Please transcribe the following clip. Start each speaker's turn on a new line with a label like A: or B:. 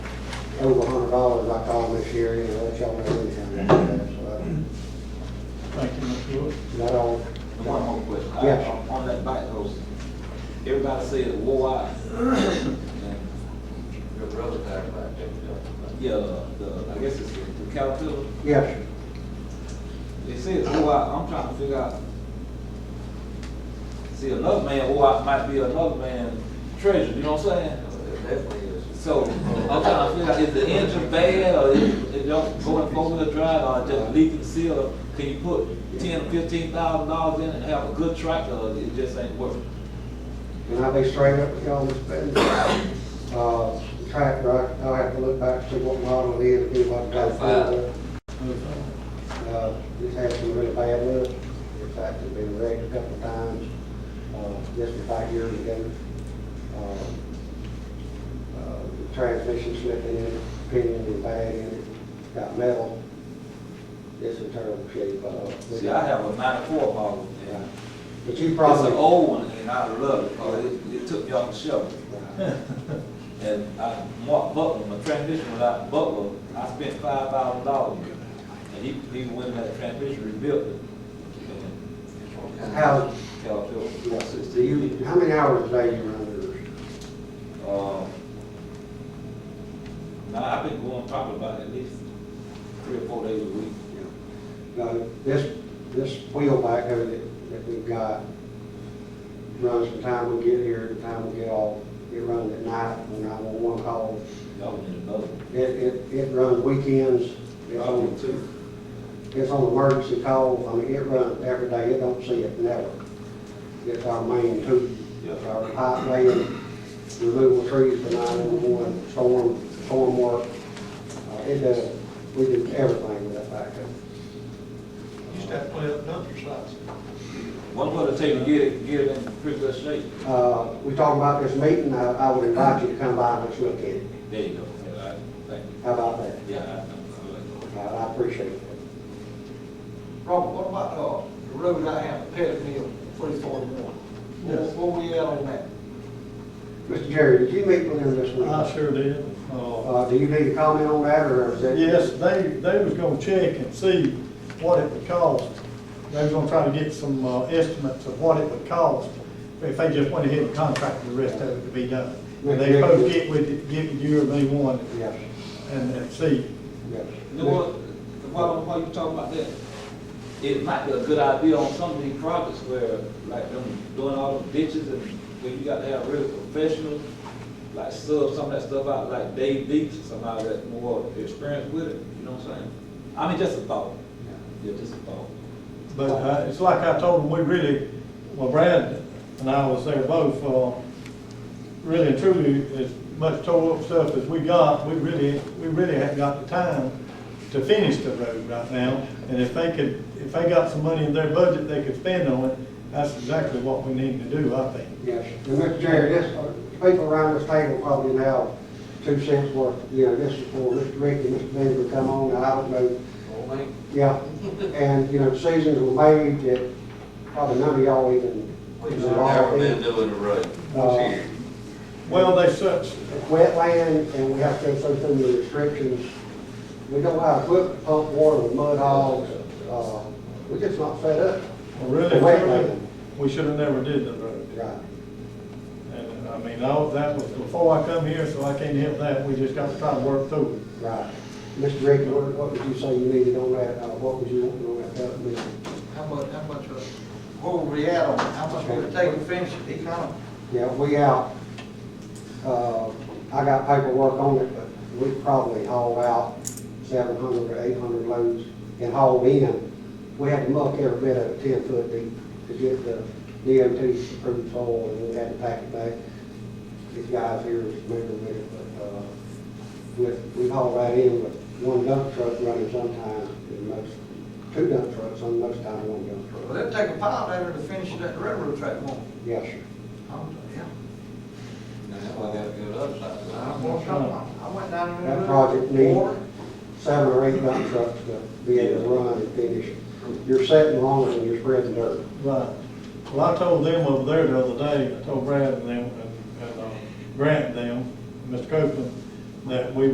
A: over a hundred dollars, I call this year, you know, let y'all know anything. Is
B: Thank you, Mr. Wood.
A: that all?
C: And One more question. I-
A: Yes.
C: on- On that bike host, everybody says wore out.
D: Your brother died about that, you
C: Yeah, the, I guess it's the the Caterpillar.
A: Yes, sir.
C: They say it's wore out. I'm trying to figure out. See, another man wore out might be another man's treasure, you know what I'm saying?
D: know, it definitely is.
C: So, I'm trying to figure out, is the engine bad, or is it don't go in four-wheel drive, or just leaking seal? Can you put ten, or fifteen thousand dollars in and have a good tractor, or it just ain't working?
A: And I'll be straight up with y'all, Mr. Benton. Uh, tractor, I- I'll have to look back, see what model it is, do what type of,
B: Move on.
A: uh, it's had some really bad luck. In fact, it's been wrecked a couple of times, uh, just about years ago. Uh, uh, the Transmission slipped in, it, pinion was bad in it, got metal. It's in terrible shape, uh.
C: See, I have a ninety-four model, and
A: But you
C: It's an
A: probably.
C: old one, and I love it, because it, it took me off the shelf. And I, Mark Butler, my transmission was out in Butler, I spent five thousand dollars. And he, he went in that transmission, rebuilt it. And
A: How,
C: Caterpillar,
A: yeah, do
C: sixty
A: you, how many hours a day you run yours?
C: Um, Now, I've been going probably about at least three or four days a week.
A: Now, this, this wheel backhoe that, that we've got runs from the time we get here to the time we get off. It runs at night when I'm on one call.
C: Y'all been in the boat.
A: It, it, it runs weekends. It's on, it's on emergency calls. I mean, it runs every day. It don't see it never. It's our main tool. It's our pipe laying, removal trees for nine-one-one, storm, storm work. Uh, It does, we do everything with that backhoe.
E: Used to have to play up dumpster sites.
C: One way to take and get it, get it in pretty good shape.
A: Uh, we talking about this meeting, I, I would invite you to come by and let's look at it.
C: There you go. Yeah, I- Thank you.
A: How about that?
C: Yeah, I- I like it.
A: I, I appreciate it.
E: Robert, what about, uh, the road I have, Pettit Mill, forty-four one?
B: Yes.
E: Where we at on that?
A: Mr. Jerry, did you meet with him this week?
B: I sure did. Uh,
A: Uh, do you need to comment on that, or is that?
B: Yes, they, they was gonna check and see what it would cost. They was gonna try to get some uh, estimates of what it would cost if they just went ahead and contracted the rest of it to be done. And they supposed to get with, get with you or me one
A: Yes,
B: and, and see.
A: yes.
C: You know what, while, while you talking about that, it might be a good idea on some of these projects where, like, them doing all them ditches and where you got to have really professionals, like sub some of that stuff out, like Dave Beach, somebody that's more experienced with it, you know what I'm saying? I mean, just a thought, yeah, just a thought.
B: But uh, it's like I told them, we really, well, Brad and I was there both, uh, really and truly, as much tore up stuff as we got, we really, we really haven't got the time to finish the road right now. And if they could, if they got some money in their budget they could spend on it, that's exactly what we need to do, I think.
A: Yes, and Mr. Jerry, this, uh, people around this table probably now, two cents worth, you know, this is for Mr. Ricky, Mr. Benjamin, come on, I don't know.
D: Old man.
A: Yeah, and, you know, decisions were made that probably none of y'all even.
D: We've never been doing the road.
A: Uh,
D: Here.
B: Well, they such,
A: wetland, and we have to go through the restrictions. We don't have equipment to pump water with mud hogs, uh, we're just not fed up.
B: really, and truly, we should have never did the road.
A: Right.
B: And I mean, all, that was before I come here, so I can't help that. We just got to try to work through it.
A: Right. Mr. Ricky, what what would you say you needed on that, uh, what would you want on that, that would be-
E: How much, how much, uh, where we at on, it? how much would it take to finish it, he kind of,
A: yeah, we out. Uh, I got paperwork on it, but we probably hauled out seven hundred or eight hundred loads and hauled in. We had to muck every bit of it ten foot deep to get the DOT approved soil, and we had to pack it back. These guys here is familiar with it, but, uh, with, we haul right in with one dump truck running sometimes, and most, two dump trucks, and most time one dump
E: well,
A: truck.
E: it'd take a pile there to finish that railroad track, won't it?
A: Yes, sir.
E: Oh, yeah.
D: Now, that one got to go to the other side.
E: I walked up, I went down there.
A: That project needs seven or eight dump trucks to be able to run and finish. You're setting longer and you're spreading dirt.
B: Right. Well, I told them over there the other day, I told Brad and them, and, and uh, Grant and them, Mr. Copeland, that we